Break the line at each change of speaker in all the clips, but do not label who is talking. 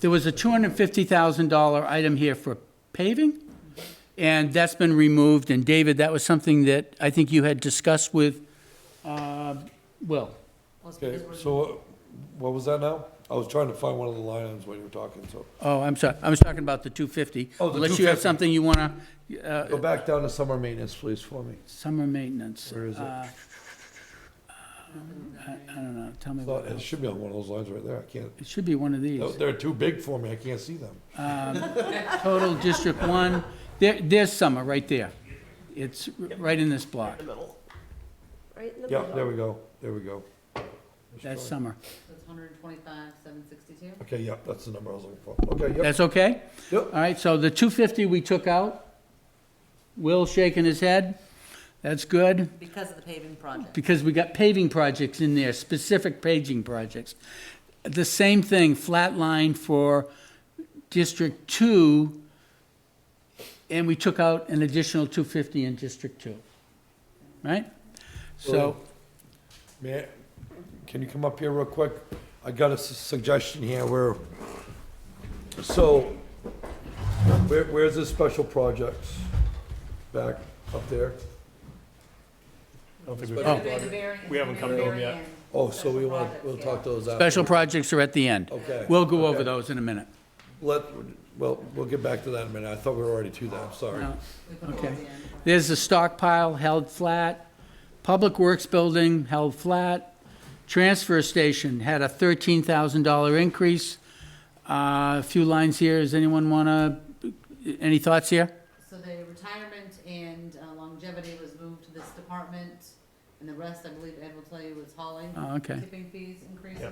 There was a $250,000 item here for paving, and that's been removed. And David, that was something that I think you had discussed with, uh, Will.
Okay, so what was that now? I was trying to find one of the line items when you were talking, so.
Oh, I'm sorry, I was talking about the 250.
Oh, the
Unless you have
250.
something you want to, uh,
Go back down to summer maintenance, please, for me.
summer maintenance.
Where is it?
Uh, I I don't know, tell me
It's not-
what,
It Oh. should be on one of those lines right there, I can't,
it should be one of these.
no, they're too big for me, I can't see them.
Total District One, there, there's summer, right there. It's right in this block,
Right in the
Yeah, there
middle.
we go, there we go.
that's summer.
That's hundred and twenty-five, seven sixty-two?
Okay, yeah, that's the number I was looking for. Okay, yep,
That's okay?
yep.
All right, so the two fifty we took out, Will shaking his head, that's good,
Because of the paving project.
because we got paving projects in there, specific paging projects. The same thing, flat line for District Two, and we took out an additional two fifty in District Two, right?
Oh,
So,
Man, can you come up here real quick? I got a su- suggestion here where, so, where, where's the special projects? Back up there?
Oh.
We haven't come to them yet.
Oh, so we want, we'll talk those out.
special projects are at the end.
Okay.
We'll go over
Okay.
those in a minute.
Let, well, we'll get back to that in a minute. I thought we were already to that, I'm sorry.
No. Okay. There's the stockpile held flat, Public Works Building held flat, Transfer Station had a thirteen thousand dollar increase. Uh, A few lines here, does anyone wanna, any thoughts here?
So the retirement and uh, longevity was moved to this department, and the rest, I believe Ed will tell you, was hauling.
Oh, okay.
Tipping fees increases.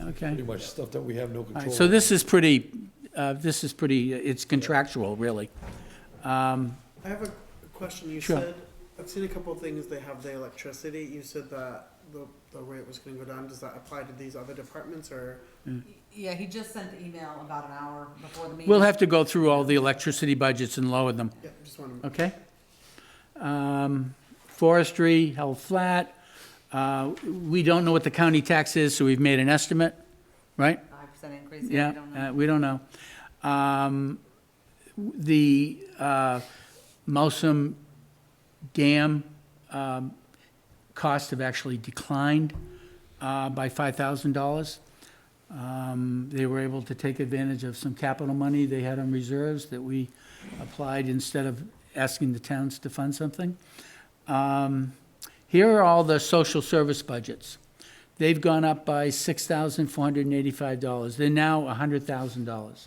Okay.
Pretty much stuff that we have no
All
control.
right, so this is pretty, uh, this is pretty, it's contractual, really. Um,
I have a question. You
Sure.
said, I've seen a couple of things, they have the electricity. You said that the, the rate was gonna go down. Does that apply to these other departments or?
Yeah, he just sent the email about an hour before the meeting.
We'll have to go through all the electricity budgets and lower them.
Yeah, just want to,
Okay. Um, Forestry held flat. Uh, We don't know what the county tax is, so we've made an estimate, right?
Five percent increase, yeah, I
Yeah,
don't
uh,
know.
we don't know. Um, The uh, Mousom Dam um, costs have actually declined uh, by $5,000. Um, They were able to take advantage of some capital money they had on reserves that we applied instead of asking the towns to fund something. Um, Here are all the social service budgets. They've gone up by $6,485. They're now $100,000.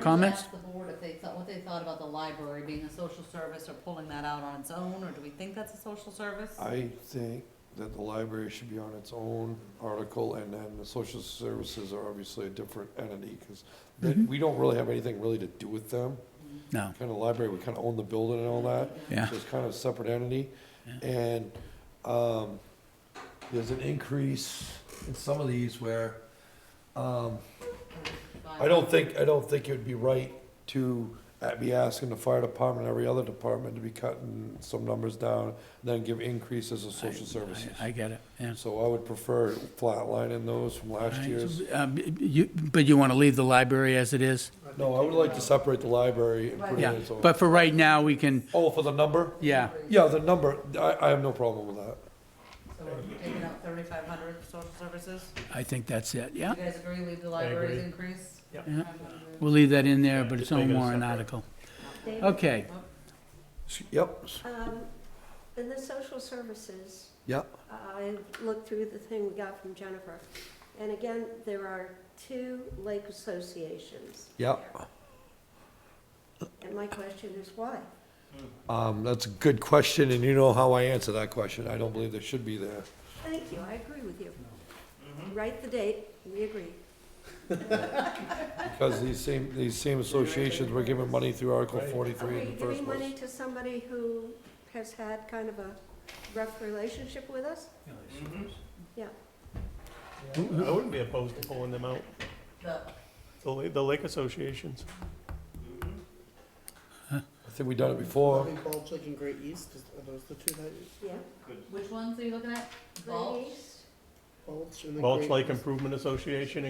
comments?
Ask the board if they thought, what they thought about the library being a social service or pulling that out on its own, or do we think that's a social service?
I think that the library should be on its own article, and then the social services are obviously a different entity, because
Mm-hmm.
we don't really have anything really to do with them.
No,
Kind of library, we kind of own the building and all that.
Yeah.
So it's kind of a separate entity. And um, there's an increase in some of these where um, I don't think, I don't think it would be right to uh, be asking the fire department, every other department to be cutting some numbers down, then give increases of social services.
I get it, yeah.
So I would prefer flatlining those from last year's.
Um, you- But you want to leave the library as it is?
No, I would like to separate the library and put it
Yeah,
in its own.
but for right now, we can,
Oh, for the number?
yeah,
Yeah, the number, I, I have no problem with that.
So we're taking out thirty-five hundred for social services?
I think that's it, yeah.
You guys agree, leave the libraries increase?
yeah. We'll leave that in there, but it's no more an article.
David,
Okay,
Yep,
um, In the social services,
yep.
I looked through the thing we got from Jennifer. And again, there are two lake associations.
Yep.
And my question is why?
Um, that's a good question, and you know how I answer that question. I don't believe they should be there.
Thank you, I agree with you. Write the date, we agree.
Because these same, these same associations were giving money through Article
Are
forty-three
we
in the first
giving money
place.
to somebody who has had kind of a rough relationship with us? Yeah.
I wouldn't be opposed to pulling them out,
The
the, la- the lake associations.
I think we done it before.
I think Bulge Lake and Great East, is- are those the two that? you-
Yeah.
Which ones are you looking at? Vault?
Great East
Balch and the
Balch
Great-
Lake Improvement Association